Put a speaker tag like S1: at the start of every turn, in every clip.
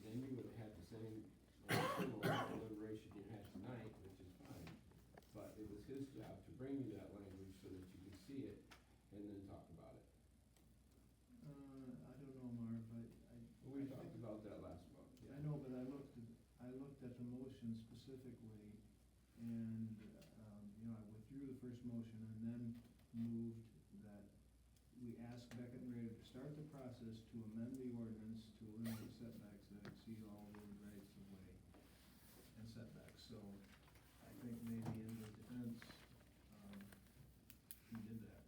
S1: bring you that language so that you can see it and then talk about it.
S2: Uh, I don't know, Marv, I, I.
S1: We
S2: I
S1: talked
S2: think-
S1: about that last month.
S2: I know, but I looked, at- I looked at the motion specifically, and, um, you know, I withdrew the first motion and then moved that we ask Beckett and Rader to start the process to amend the ordinance to eliminate setbacks that exceed all road rights of way and setbacks, so I think maybe in the defense, um, he did that.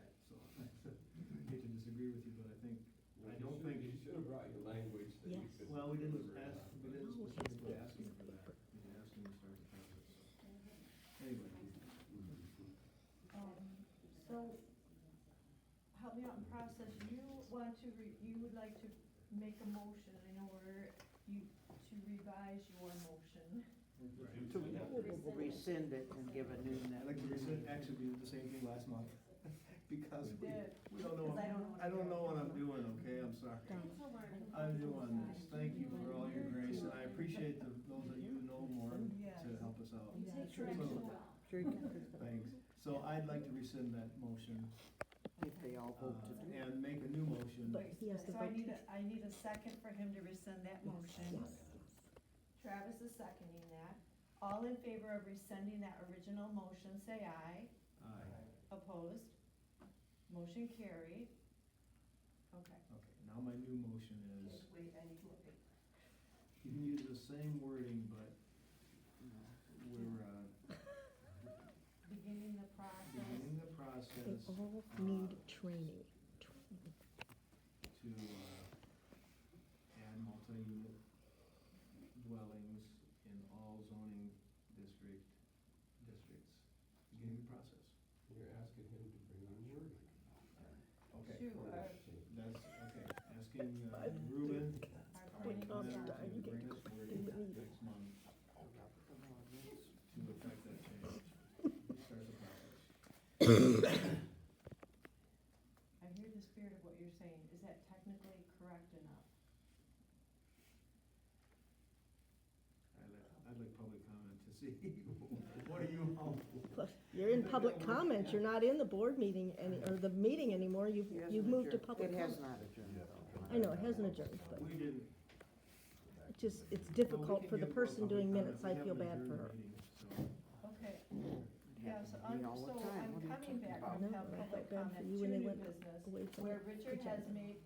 S2: I, so, I hate to disagree with you, but I think,
S1: Well,
S2: I
S1: you
S2: don't
S1: should-
S2: think.
S1: You should have brought your language that you
S3: Yes.
S1: could.
S2: Well, we didn't
S1: deliberate
S2: ask,
S1: on,
S2: we
S1: but-
S2: didn't
S3: No, it's
S2: specifically
S3: supposed
S2: ask
S3: to be
S2: him for that.
S3: paper.
S2: We didn't ask him to start the process, so. Anyway,
S1: Mhm.
S4: Um, So, help me out in process, you want to, re- you would like to make a motion in order you, to revise your motion.
S2: right.
S1: To-
S3: We'll rescind it and give a new.
S2: I'd like to rescind, actually, we did the same thing last month, because we, we don't know,
S4: Because I don't know what
S2: I don't know what I'm
S4: you're
S2: doing, okay, I'm sorry.
S4: It's all right.
S2: I'm doing this, thank you for all your grace, and I appreciate the, those that you know more to help us out.
S4: You take your action well.
S2: Thanks, so I'd like to rescind that motion,
S3: If they all
S2: uh,
S3: vote to do.
S2: and make a new motion.
S3: He has to
S4: So I
S3: vote.
S4: need a, I need a second for him to rescind that motion. Travis is seconding that. All in favor of rescinding that original motion, say aye.
S2: Aye,
S4: Opposed? Motion carried. Okay.
S2: okay, now my new motion is
S4: Wait, I need to wait.
S2: You can use the same wording, but we're uh,
S4: Beginning the process.
S2: beginning the
S5: They
S2: process
S5: all
S2: uh,
S5: need training. Training.
S2: to uh, add multi-unit dwellings in all zoning district, districts, beginning the process.
S1: You're asking him to bring on your.
S2: Okay,
S4: Two are,
S2: that's, okay, asking uh, Ruben,
S4: are
S2: our
S4: beginning the
S2: planner, to bring
S4: process.
S5: Upstart, you get
S2: this wording next month to affect that change. Start the process.
S4: I hear the spirit of what you're saying. Is that technically correct enough?
S2: I'd like, I'd like public comment to see, what are you all for?
S5: Plus, You're in public comments, you're not in the board meeting any, or the meeting anymore, you've, you've moved to public
S3: It has
S5: comments.
S3: not adjourned though.
S5: I know, it hasn't adjourned, but
S2: We didn't.
S5: it's just, it's
S2: Well, we
S5: difficult
S2: can
S5: for the
S2: give
S5: person
S2: public
S5: doing
S2: comments.
S5: minutes, I
S2: We
S5: feel
S2: haven't
S5: bad for
S2: adjourned
S5: her.
S2: meetings, so
S4: Okay, yeah, so
S3: It happens
S4: I'm,
S3: to me all the
S4: so
S3: time. What are you
S4: I'm coming
S3: talking
S4: back
S3: about?
S4: with
S5: No, I
S4: public
S5: felt bad for
S4: comment to
S5: you when they
S4: new
S5: went
S4: business,
S5: away from
S4: where
S5: the
S4: Richard has
S5: agenda.
S4: made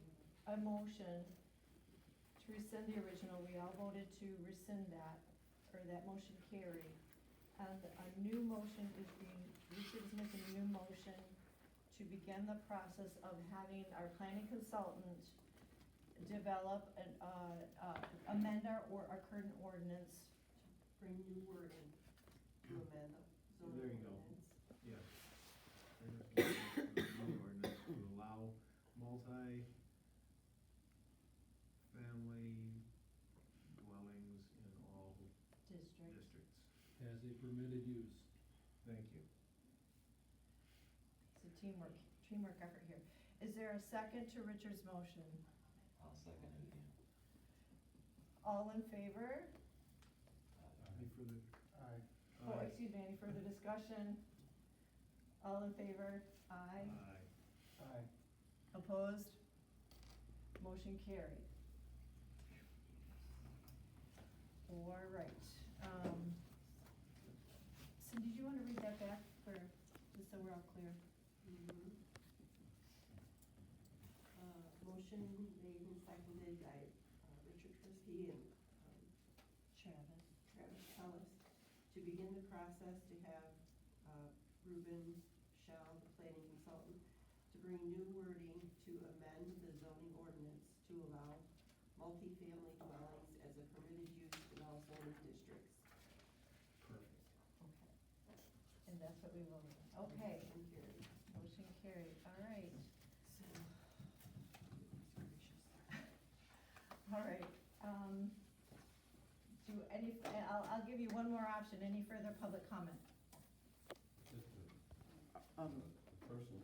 S4: a motion to rescind the original, we all voted to rescind that, or that motion carried. And a new motion is being, Richard is making a new motion to begin the process of having our planning consultant develop and, uh, uh, amend our, or our current ordinance
S6: bring new wording to amend the zoning
S2: There you go.
S6: ordinance.
S2: Yeah. New ordinance to allow multi-family dwellings in all
S4: district.
S2: districts.
S7: as a permitted use.
S2: Thank you.
S4: It's a teamwork, teamwork effort here. Is there a second to Richard's motion?
S8: I'll second it again.
S4: All in favor?
S2: Any further? Aye.
S4: Oh, excuse me, any further discussion? All in favor? Aye.
S2: Aye. Aye.
S4: Opposed? Motion carried. All right. um, Cindy, do you want to read that back for, just so we're all clear?
S6: Mhm. Uh, Motion made and seconded by uh, Richard Christie and um,
S4: Travis.
S6: Travis Ellis to begin the process to have uh, Ruben Shell, the planning consultant, to bring new wording to amend the zoning ordinance to allow multifamily dwellings as a permitted use in all zoning districts.
S2: Perfect.
S4: Okay. And that's what we will, okay,
S6: Motion carried.
S4: motion carried, all right.
S6: So, gracious.
S4: All right, um, do any, I'll, I'll give you one more option, any further public comment?
S1: Just a-
S3: Um,
S1: a Personal